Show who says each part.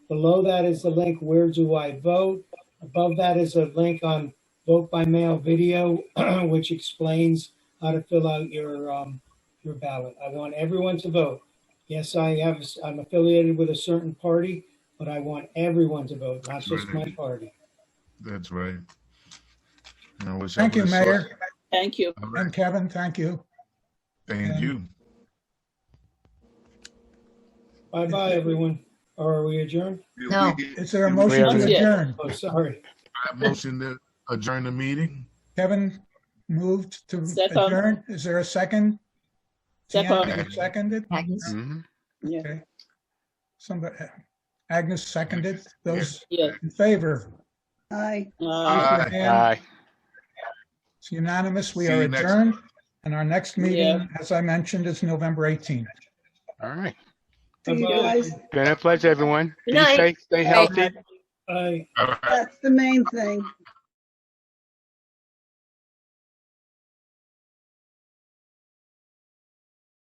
Speaker 1: Below that is the link, where do I vote? Above that is a link on vote by mail video, which explains how to fill out your, um, your ballot. I want everyone to vote. Yes, I have, I'm affiliated with a certain party, but I want everyone to vote, not just my party.
Speaker 2: That's right. And I wish I
Speaker 3: Thank you,
Speaker 2: would've saw-
Speaker 3: Mayor,
Speaker 4: Thank you.
Speaker 2: All right,
Speaker 3: and Kevin, thank you.
Speaker 2: Thank you.
Speaker 1: Bye-bye, everyone. Or are we adjourned?
Speaker 5: No.
Speaker 2: We-
Speaker 3: Is there a
Speaker 2: we
Speaker 3: motion
Speaker 4: Not
Speaker 3: to
Speaker 4: yet.
Speaker 3: adjourn?
Speaker 1: Oh, sorry.
Speaker 2: have a Motion to adjourn the meeting?
Speaker 3: Kevin moved to
Speaker 4: Second.
Speaker 3: adjourn. Is there a second?
Speaker 4: Second.
Speaker 3: Bianca Seconded?
Speaker 5: Agnes?
Speaker 2: Mhm.
Speaker 4: Yeah.
Speaker 3: Okay. Somebody, Agnes seconded. Those
Speaker 4: Yeah.
Speaker 3: in favor?
Speaker 4: Uh,
Speaker 2: Aye.
Speaker 3: Aye. It's unanimous. We
Speaker 2: See
Speaker 3: are
Speaker 2: you next-
Speaker 3: adjourned. And our next
Speaker 4: Yeah.
Speaker 3: meeting, as I mentioned, is November 18th.
Speaker 6: All right.
Speaker 7: See you
Speaker 1: Bye-bye.
Speaker 7: guys.
Speaker 6: Been a pleasure, everyone. Be
Speaker 5: Good night.
Speaker 6: safe, stay healthy.
Speaker 1: Bye.
Speaker 2: All right.
Speaker 7: That's the main thing.